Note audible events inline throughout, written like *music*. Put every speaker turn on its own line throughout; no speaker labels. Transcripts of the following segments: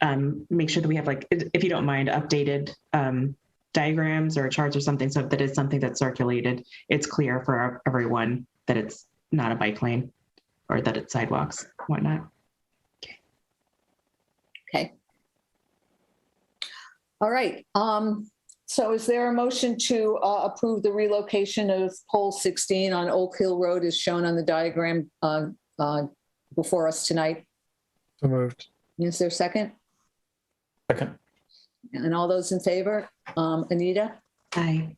um, make sure that we have like, i- if you don't mind, updated um, diagrams or charts or something so that it's something that's circulated. It's clear for everyone that it's not a bike lane or that it's sidewalks, whatnot.
All right, um, so is there a motion to uh, approve the relocation of pole 16 on Oak Hill Road as shown on the diagram uh, uh, before us tonight?
So moved.
Is there a second?
Second.
And all those in favor? Um, Anita,
Aye.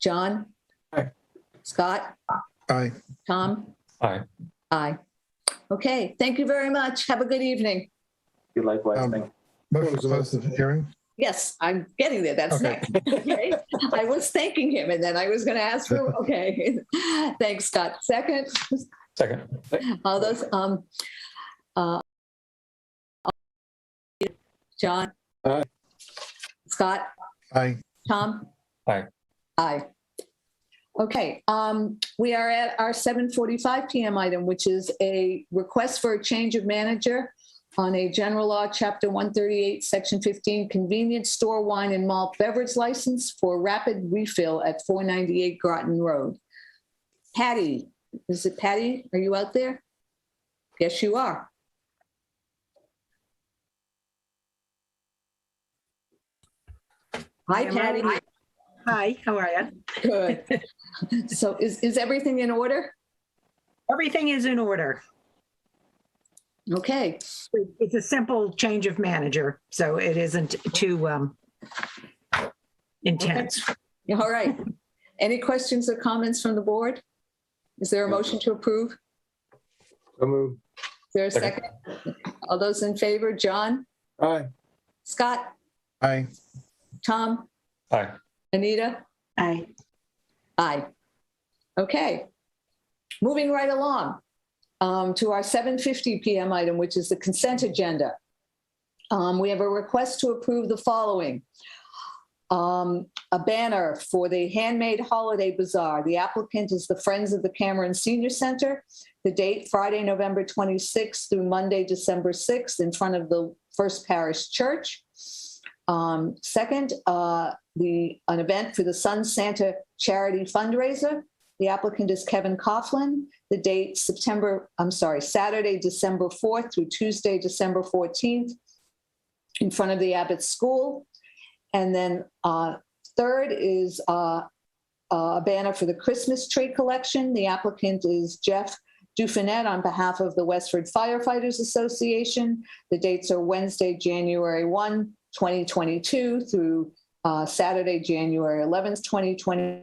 John?
Aye.
Scott,
Aye.
Tom?
Aye.
Aye. Okay, thank you very much. Have a good evening.
You likewise,
Um,
thank
Motion to close the hearing?
Yes, I'm getting there. That's
Okay.
next. *laughs* Okay. I was thanking him and then I was going to ask for, okay. Thanks, Scott. Second?
Second.
All those, um, uh, John?
Aye.
Scott?
Aye.
Tom?
Aye.
Aye. Okay, um, we are at our seven forty-five PM item, which is a request for a change of manager on a general law, chapter one thirty-eight, section fifteen, convenience store wine and malt beverage license for rapid refill at four ninety-eight Groton Road. Patty, is it Patty? Are you out there? Yes, you are. Hi,
Am I
Patty.
live? Hi, how are you?
Good. *laughs* So is, is everything in order?
Everything is in order.
Okay,
It's a simple change of manager, so it isn't too um, intense.
all right. Any questions or comments from the board? Is there a motion to approve? Is
So moved.
there a second? All those in favor, John,
Aye.
Scott,
Aye.
Tom,
Aye.
Anita?
Aye.
Aye. Okay. Moving right along um, to our 7:50 PM item, which is the consent agenda. Um, We have a request to approve the following. Um, A banner for the handmade holiday bazaar. The applicant is the Friends of the Cameron Senior Center. The date, Friday, November 26th through Monday, December 6th, in front of the First Parish Church. Um, Second, uh, the, an event for the Sun Santa Charity Fundraiser. The applicant is Kevin Coughlin. The date, September, I'm sorry, Saturday, December 4th through Tuesday, December 14th, in front of the Abbott School. And then uh, third is uh, a banner for the Christmas tree collection. The applicant is Jeff Dufanet on behalf of the Westford Firefighters Association. The dates are Wednesday, January 1, 2022 through uh, Saturday, January 11th, 2020.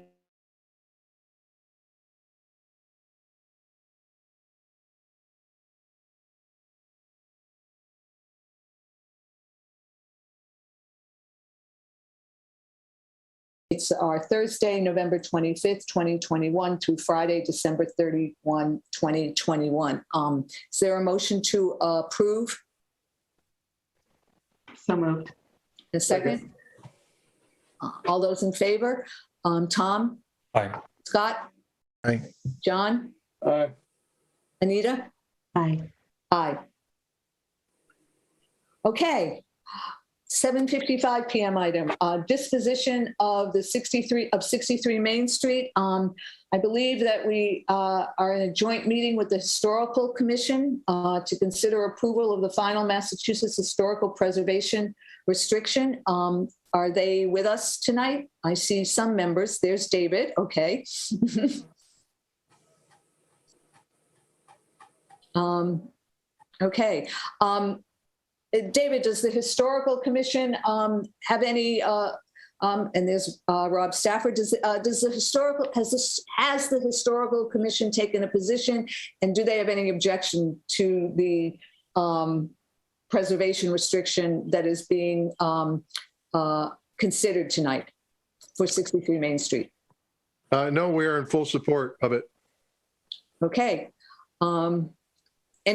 It's our Thursday, November 25th, 2021 through Friday, December 31, 2021. Um, Is there a motion to approve?
So moved.
A second? Uh, All those in favor? Um, Tom?
Aye.
Scott?
Aye.
John?
Aye.
Anita?
Aye.
Aye. Okay. 7:55 PM item, uh, disposition of the 63, of 63 Main Street. Um, I believe that we uh, are in a joint meeting with the Historical Commission uh, to consider approval of the final Massachusetts Historical Preservation Restriction. Um, Are they with us tonight? I see some members. There's David, okay. *laughs* Um, Okay. Um, uh, David, does the Historical Commission um, have any, uh, um, and there's uh, Rob Stafford, does, uh, does the Historical, has this, has the Historical Commission taken a position? And do they have any objection to the um, preservation restriction that is being um, uh, considered tonight for 63 Main Street?
Uh, no, we are in full support of it.
Okay. Um,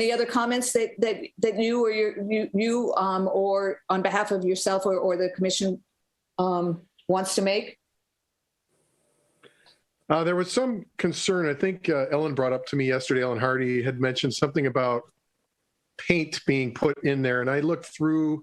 Any other comments that, that, that you or your, you, you, um, or on behalf of yourself or, or the commission um, wants to make?
Uh, there was some concern, I think uh, Ellen brought up to me yesterday, Ellen Hardy had mentioned something about paint being put in there, and I looked through